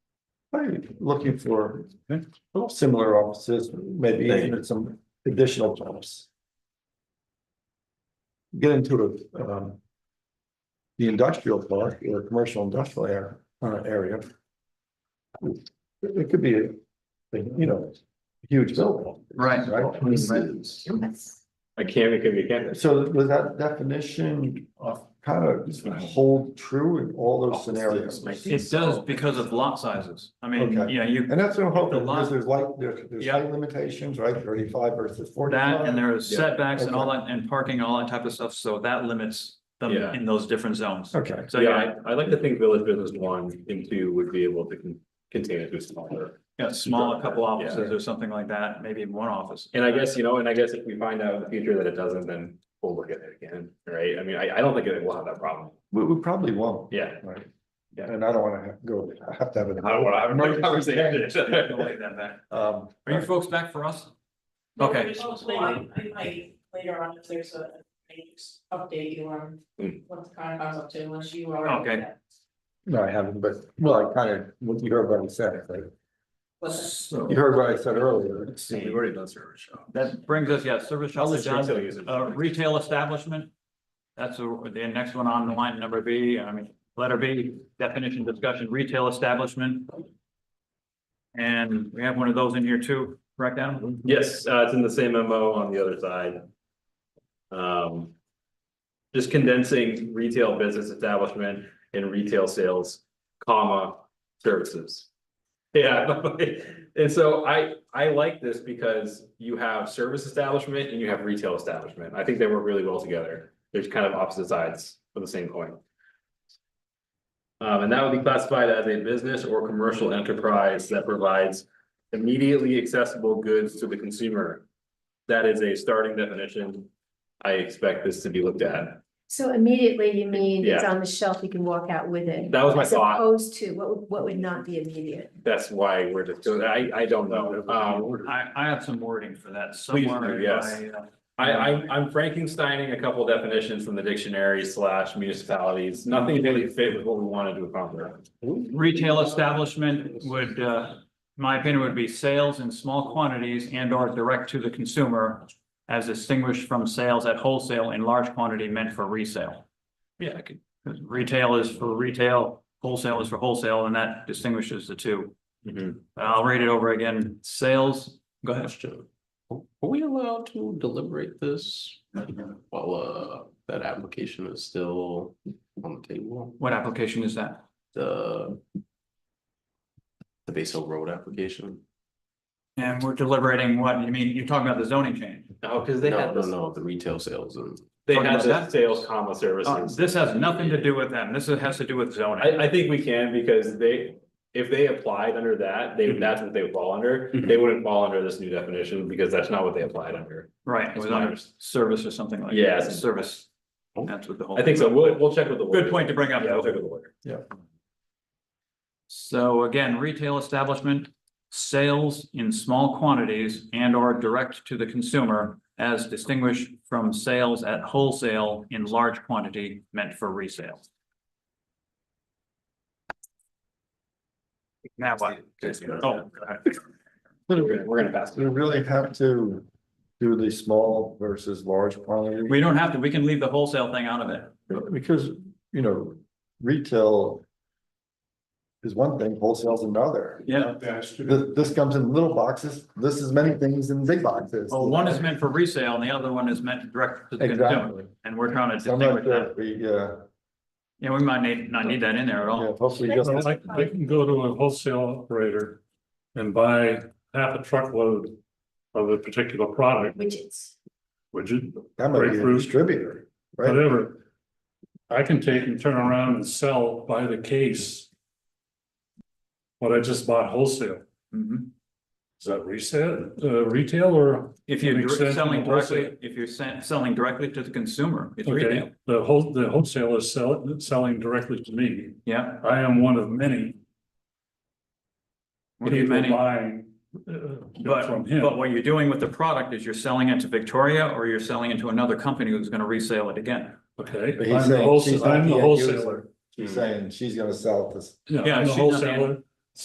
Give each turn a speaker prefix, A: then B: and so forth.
A: I'm looking for
B: Okay.
A: similar offices, maybe even some additional jobs. Get into a, um. The industrial park or commercial industrial air, uh, area. It it could be, a thing, you know, a huge building.
C: Right.
A: Right?
D: Yes.
E: I can't, because we can't.
A: So was that definition of kind of hold true in all those scenarios?
C: It does because of lot sizes. I mean,
A: Okay.
C: you know, you,
A: And that's what I'm hoping,
C: The
A: because
C: lot-
A: there's like, there's, there's
C: Yeah.
A: height limitations, right, thirty-five versus
C: that and
A: forty-five.
C: there is
E: Yeah.
C: setbacks and all that and parking and all that type of stuff. So that limits them
E: Yeah.
C: in those different zones.
A: Okay,
C: So yeah,
E: yeah, I, I like to think village business one and two would be able to con- contain it to a smaller.
C: yeah, small, a couple
E: Yeah.
C: offices or something like that, maybe one office.
E: And I guess, you know, and I guess if we find out in the future that it doesn't, then we'll look at it again, right? I mean, I, I don't think it will have that problem.
A: we, we probably won't.
E: Yeah.
A: Right.
E: Yeah.
A: And I don't wanna have- go, I have to have
E: I don't
A: an.
E: wanna have another
C: We'll
E: conversation.
C: leave that back.
A: Um,
C: Uh, Are you folks back for us? Okay.
D: Well, I I might later on, if there's a, I just update you on
E: Mm.
D: what the kind of comes up to, unless you already.
C: Hmm. Okay.
A: no, I haven't, but, well, I kind of, what you heard what I said, like,
D: But
C: So
A: you heard what I said earlier.
E: We've already done service shop.
C: that brings us, yeah, service shop is done.
E: Retail uses.
C: Uh, retail establishment. That's the the next one on the line, number B, I mean, letter B, definition discussion, retail establishment. And we have one of those in here too, correct, Adam?
E: Yes, uh, it's in the same MO on the other side. Um. Just condensing retail business establishment and retail sales, comma, services. Yeah, and so I, I like this because you have service establishment and you have retail establishment. I think they work really well together. There's kind of opposite sides of the same coin. Um, and that would be classified as a business or commercial enterprise that provides immediately accessible goods to the consumer. That is a starting definition. I expect this to be looked at.
F: So immediately you mean it's on the shelf, you can walk out with it.
E: That was my
F: As
E: thought.
F: opposed to, what would, what would not be immediate?
E: That's why we're just, doing- I, I don't know. Um,
C: I, I have some wording for that
E: Please do,
C: somewhere.
E: yes.
C: I, uh,
E: I, I'm, I'm Frankensteining a couple definitions from the dictionary slash municipalities. Nothing really fit with what we wanted to accomplish.
C: Retail establishment would, uh, my opinion would be sales in small quantities and or direct to the consumer. As distinguished from sales at wholesale in large quantity meant for resale. Yeah, I could, 'cause retail is for retail, wholesale is for wholesale, and that distinguishes the two.
G: Mm-hmm.
C: I'll read it over again. Sales, go ahead.
G: Question. Are we allowed to deliberate this while uh that application is still on the table?
C: What application is that?
G: The. The Base Hill Road application?
C: And we're deliberating what, you mean, you're talking about the zoning change.
E: Oh, because they
G: No,
E: had,
G: no,
E: this-
G: no, the retail sales and
E: they had
C: Talking about
E: the sales comma
C: Uh,
E: services.
C: This has nothing to do with them. This has to do with zoning.
E: I, I think we can because they, if they applied under that, they,
G: Mhm.
E: that's what they would fall under.
G: Mhm.
E: They wouldn't fall under this new definition because that's not what they applied under.
C: Right, it
E: It's
C: was
E: my
C: under service or something like. that. Oh.
E: Yeah.
C: Service. That's what the whole.
E: I think so. We'll, we'll check with the. lawyer.
C: Good point to bring up.
E: Yeah, we'll check with the lawyer.
C: So again, retail establishment, sales in small quantities and or direct to the consumer as distinguished from sales at wholesale in large quantity meant for resale. Now what? Oh,
E: We're gonna- we're gonna pass.
A: We really have to do the small versus large quantity.
C: we don't have to, we can leave the wholesale thing out of it.
A: Because, you know, retail. Is one thing, wholesale's another.
C: Yeah.
A: This, this comes in little boxes, this is many things in big boxes.
C: Well, Oh, one is meant for resale and the other one is meant direct to the consumer.
A: Exactly.
C: And we're trying to
A: So I'm not
C: distinguish
A: sure
C: that.
A: if we, uh,
C: Yeah, we might need, not need that in there at all.
A: yeah, hopefully just.
H: Well, Like, they can go to a wholesale operator and buy half a truckload of a particular product,
F: Widgets.
H: widget,
A: That might be a
H: Grapefruit.
A: distributor, right?
H: whatever. I can take and turn around and sell by the case. What I just bought wholesale,
C: Mhm.
H: is that resale, uh, retail or?
C: If you're direct-
H: Makes sense
C: selling
H: in wholesale.
C: directly, if you're se- selling directly to the consumer, it's retail.
H: Okay, the whole, the wholesale is selling, selling directly to me.
C: Yeah,
H: I am one of many
C: one of
H: people
C: many.
H: buying. uh,
C: But,
H: from him.
C: but what you're doing with the product is you're selling it to Victoria or you're selling it to another company who's gonna resell it again.
H: Okay,
A: But he's
H: I'm the
A: saying she's
H: wholesaler,
A: not
H: I'm
A: the
H: the
A: end
H: wholesaler.
A: user. She's saying she's gonna sell this.
H: Yeah,
C: Yeah,
H: I'm the
C: she's not the
H: wholesaler,